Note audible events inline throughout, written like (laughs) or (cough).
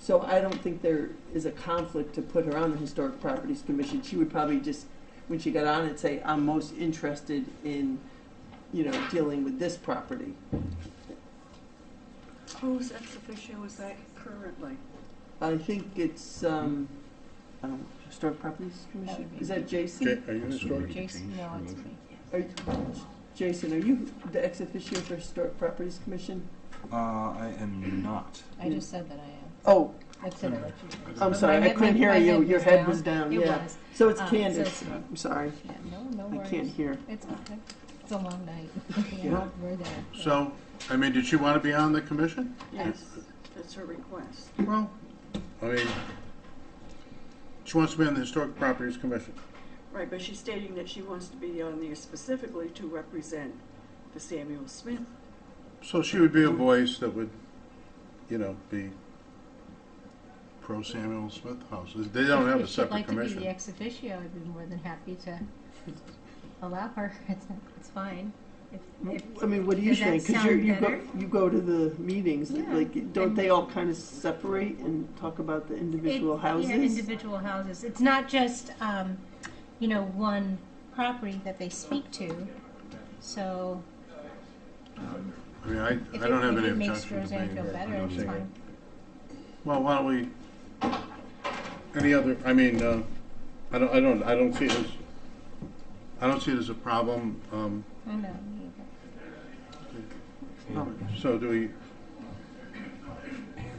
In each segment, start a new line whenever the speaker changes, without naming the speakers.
So I don't think there is a conflict to put her on the Historic Properties Commission. She would probably just, when she got on it, say, I'm most interested in, you know, dealing with this property.
Whose ex officio is that currently?
I think it's, um, I don't, know, Historic Properties Commission?
would be
Is that
me.
Jason?
Jay, are you historic?
Jason, no, it's me.
Are you- Jason, are you the ex officio for Historic Properties Commission?
Uh, I am not.
I just said that I
Oh,
am. I said it like you did.
I'm sorry,
My
I
head-
couldn't
my-
hear
my
you. Your head was down,
It
yeah.
was.
So it's
Um, so
Candace.
it's me.
I'm sorry,
Yeah, no, no
I
worries.
can't hear.
It's okay. It's a long
(laughs)
night.
Yeah.
Yeah, we're there.
So, I mean, did she want to be on the commission?
Yes, that's her request.
Well, I mean, she wants to be on the Historic Properties Commission.
Right, but she's stating that she wants to be on there specifically to represent the Samuel Smith.
So she would be a voice that would, you know, be pro Samuel Smith House. They don't have a separate
If she'd like to be the
commission.
ex officio, I'd be more than happy to allow her. (laughs) It's, it's fine. If, if,
I mean, what do you
Does that
think? Because
sound
you go,
better?
you go to the meetings,
Yeah.
like, don't
And-
they all kind of separate and talk about the individual
It- Yeah,
houses?
individual houses. It's not just, um, you know, one property that they speak to. So
I mean, I,
if
I
it
don't have any
really makes
objection to
Roseanne
being.
feel better,
on
it's
the-
fine.
Well, why don't we, any other, I mean, uh, I don't, I don't, I don't see it as, I don't see it as a problem. Um,
I know. me either.
So do we,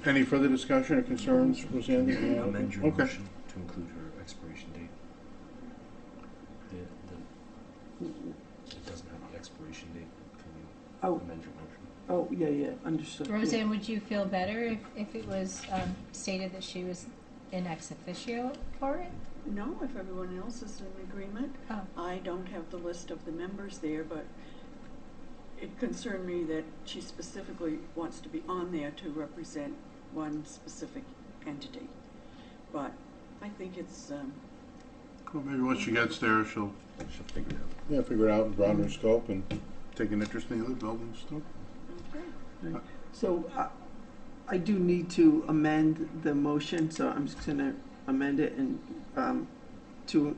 any further discussion or concerns, Roseanne? that you have?
amend your
Okay.
motion to include her expiration date. The, the, it doesn't have the expiration date. Can you
Oh,
amend your motion?
oh, yeah, yeah, understood. yeah.
Roseanne, would you feel better if, if it was um, stated that she was an ex officio for it?
No, if everyone else is in agreement.
Oh.
I don't have the list of the members there, but it concerned me that she specifically wants to be on there to represent one specific entity. But I think it's, um,
Well, maybe once she gets there, she'll,
She'll figure it out.
yeah, figure it out and broaden her scope and take an interest in the other buildings too.
okay.
So I- I do need to amend the motion, so I'm just going to amend it and um, to,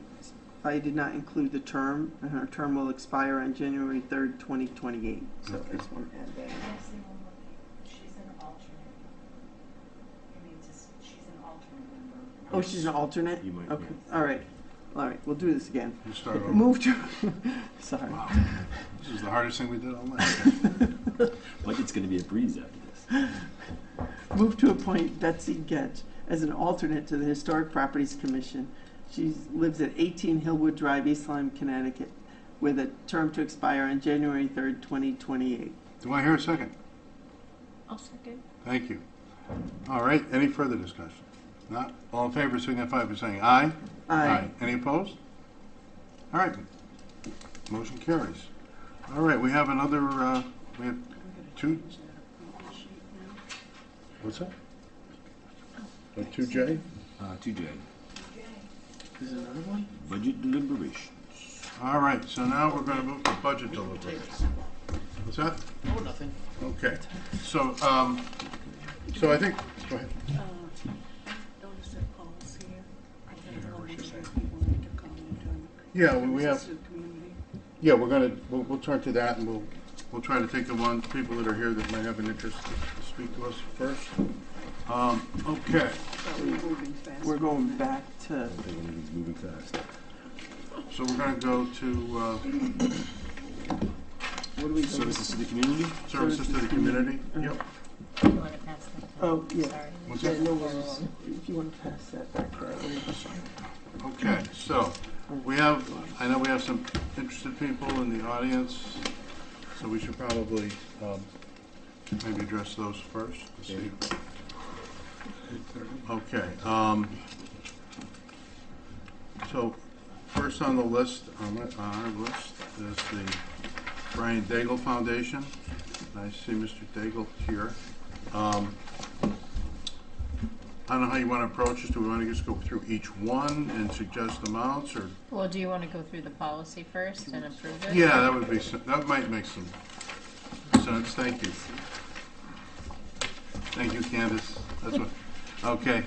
I did not include the term, and her term will expire on January 3rd, 2028. So I just want to add that.
Yes, and we'll look at- she's an alternate. I mean, just, she's an alternate member.
Oh, she's an alternate?
You might,
Okay, all right, all right, we'll do this again.
You start over.
Move to, (laughs) sorry.
Wow, this is the hardest thing we did all night.
Like it's gonna be a breeze after this.
Move to appoint Betsy Getch as an alternate to the Historic Properties Commission. She lives at 18 Hillwood Drive, East Lyme, Connecticut, with a term to expire on January 3rd, 2028.
Do I hear a second?
I'll second.
Thank you. All right, any further discussion? Not, all in favor signify by saying aye.
Aye.
Any opposed? All right, motion carries. All right, we have another, uh, we have two,
Is that a problem sheet now?
what's that? Uh, Two J?
Uh, two J,
Is there another one?
budget deliberation.
All right, so now we're gonna move to budget deliberations. What's that?
Oh, nothing.
Okay, so, um, so I think, go ahead.
Uh, Notice that Paul's here. I don't know if he wanted to comment on
Yeah, we we have.
assisted community.
Yeah, we're gonna, we'll, we'll turn to that and we'll, we'll try to take the ones, people that are here that might have an interest to speak to us first. Um, okay,
But we're moving fast.
We're going back to,
I think everything's moving fast.
so we're gonna go to, uh,
what do we go?
Services to the community?
services to the community. Yep.
You want to pass that?
Oh, yeah.
Sorry.
What's
Yeah,
that?
no worries. If you want to pass that back that way.
Okay, so, we have, I know we have some interested people in the audience, so we should probably, um, maybe address those first. to see. Okay, um, so, first on the list, on the- on our list, is the Brian Daigle Foundation. I see Mr. Daigle here. Um, I don't know how you want to approach this. Do we want to just go through each one and suggest amounts, or?
Well, do you want to go through the policy first and approve it?
Yeah, that would be, s- that might make some sense, thank you. Thank you, Candace, that's what, Okay.